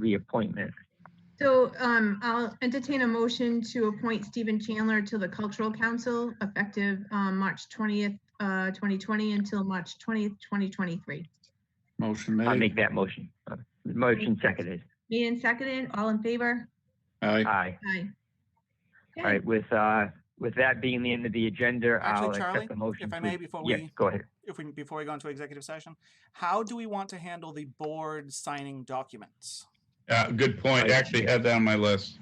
reappointment. So um, I'll entertain a motion to appoint Stephen Chandler to the Cultural Council effective um, March 20th, uh, 2020 until March 20th, 2023. Motion I'll made. make that motion. Uh, Motion seconded. Made and seconded, all in favor? Aye. Aye. Aye. All Okay. right, with, uh, with that being the end of the agenda, I'll Actually, Charlie, accept the motion. if I to- may, before Yes, we- go ahead. if we, before we go into executive session, how do we want to handle the board signing documents? Uh, good point. Actually had that on my list.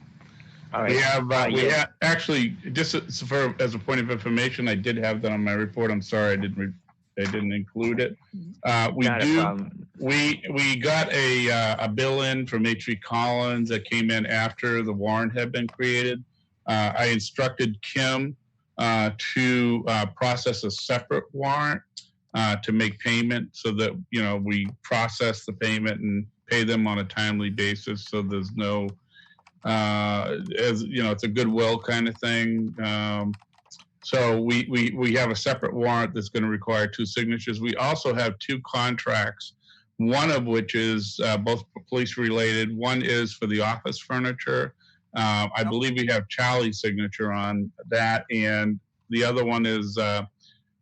All We right, have, uh, Uh, we yeah. have, actually, just as- for, as a point of information, I did have that on my report. I'm sorry, I didn't, re- I didn't include it. Uh, we not a do, problem. we, we got a, uh, a bill in from H.E. Collins that came in after the warrant had been created. Uh, I instructed Kim, uh, to, uh, process a separate warrant, uh, to make payment so that, you know, we process the payment and pay them on a timely basis. So there's no, uh, as, you know, it's a goodwill kind of thing. Um, so we, we, we have a separate warrant that's going to require two signatures. We also have two contracts one of which is uh, both police related. One is for the office furniture. Uh, I believe we have Charlie's signature on that, and the other one is uh,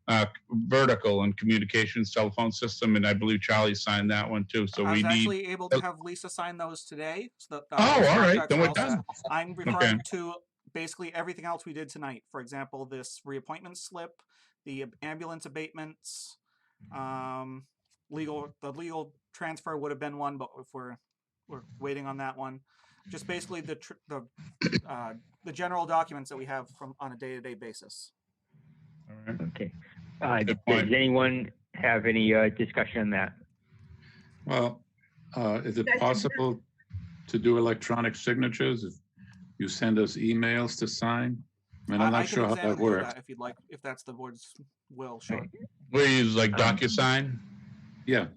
uh, vertical and communications telephone system, and I believe Charlie signed that one too. So we I was need. actually uh, able to have Lisa sign those today. So the, Oh, all right, contracts then are we're all done. set. I'm referring to basically everything else we did tonight. For example, this reappointment slip, the ab- ambulance abatements, Mm-hmm. um, legal, the legal transfer would have been one, but if we're, we're waiting on that one. Just basically the, tr- the, uh, the general documents that we have from, on a day-to-day basis. All right. Okay. Uh, Good does point. anyone have any, uh, discussion on that? Well, uh, is it That's- possible to do electronic signatures? If You send us emails to sign? I mean, I- I'm I not can sure how that examine and do works. If you'd like, if that's the board's will, sure. We use like Um, DocuSign. Yeah,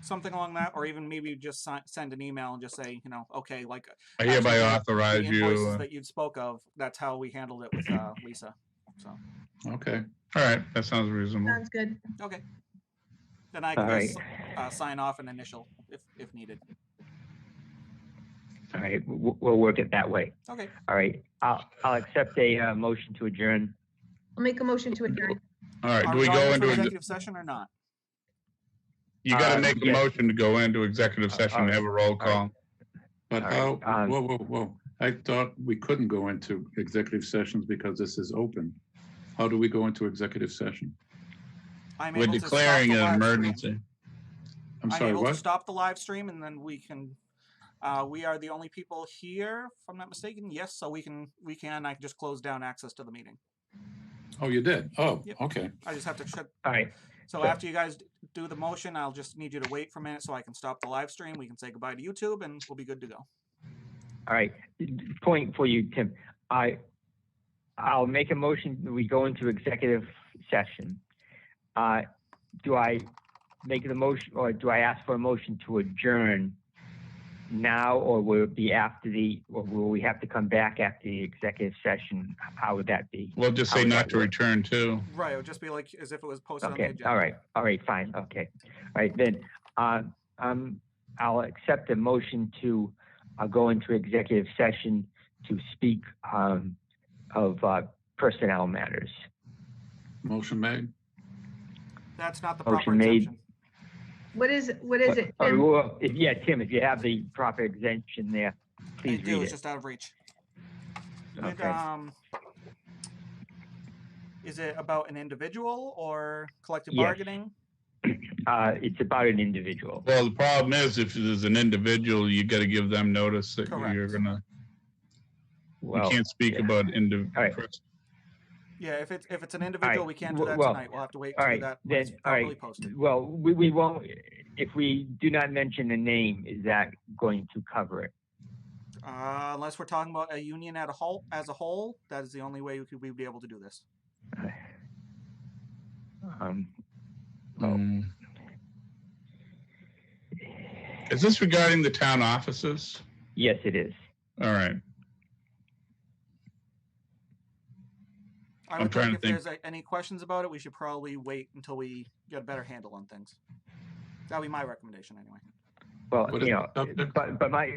Something along that, or even maybe just si- send an email and just say, you know, okay, like uh, I hereby actually, uh, the authorize you. invoices uh, that you spoke of, that's how we handled it with uh, Lisa. So, okay. All right, that sounds reasonable. Sounds good. okay. Then I All can right, just, uh, sign off and initial if, if needed. all right, we'll, we'll work it that way. Okay, All right, I'll, I'll accept a, uh, motion to adjourn. I'll make a motion to adjourn. All right, are do we going go into into, executive session or not? you got Uh, to make a yes. motion to go into executive Uh, session and uh, have a roll right. call. But All right, how, um, whoa, whoa, whoa. I thought we couldn't go into executive sessions because this is open. How do we go into executive session? I'm We're able to stop declaring the an live stream. emergency. I'm I'm sorry, able to what? stop the live stream and then we can, uh, we are the only people here, if I'm not mistaken. Yes, so we can, we can, I can just close down access to the meeting. Oh, you did? Oh, Yep. okay. I just have to shut. All right, So Sure. after you guys d- do the motion, I'll just need you to wait for a minute so I can stop the live stream. We can say goodbye to YouTube and we'll be good to go. all right. Point for you, Tim. I, I'll make a motion, that we go into executive session. Uh, do I make the motion, or do I ask for a motion to adjourn now, or will it be after the, or will we have to come back after the executive session? How would that be? We'll just How say would not that to work? return to. Right, it would just be like as if it was posted on the Okay, agenda. all right, all right, fine, okay. All right, then, uh, um, I'll accept a motion to, uh, go into executive session to speak, um, of, uh, personnel matters. Motion made. That's not the Motion proper Oh, made. exemption. What is, what is it? Uh, Tim? well, if- Yeah, Tim, if you have the proper exemption there, I please do, read it's it. just out of reach. It, Okay, um, is it about an individual or collective Yes. bargaining? uh, it's about an individual. Well, the problem is if there's an individual, you got to give them notice that you're Correct. gonna, you Well, can't speak yeah. about individual. All right. Yeah, if it's if it's an individual, we can't do w- that well, tonight. We'll have to wait all to do right, that then, when it's all right. properly posted. well, we, we won't, if we do not mention a name, is that going to cover it? Uh, unless we're talking about a union at a whole as a whole, that is the only way we could we'd be able to do this. Um, well, Mm. Is this regarding the town offices? yes, it is. All right, I I'm would trying to think think. if there's like, any questions about it, we should probably wait until we get a better handle on things. That'd be my recommendation anyway. Well, What is you the know, subject? but, but my,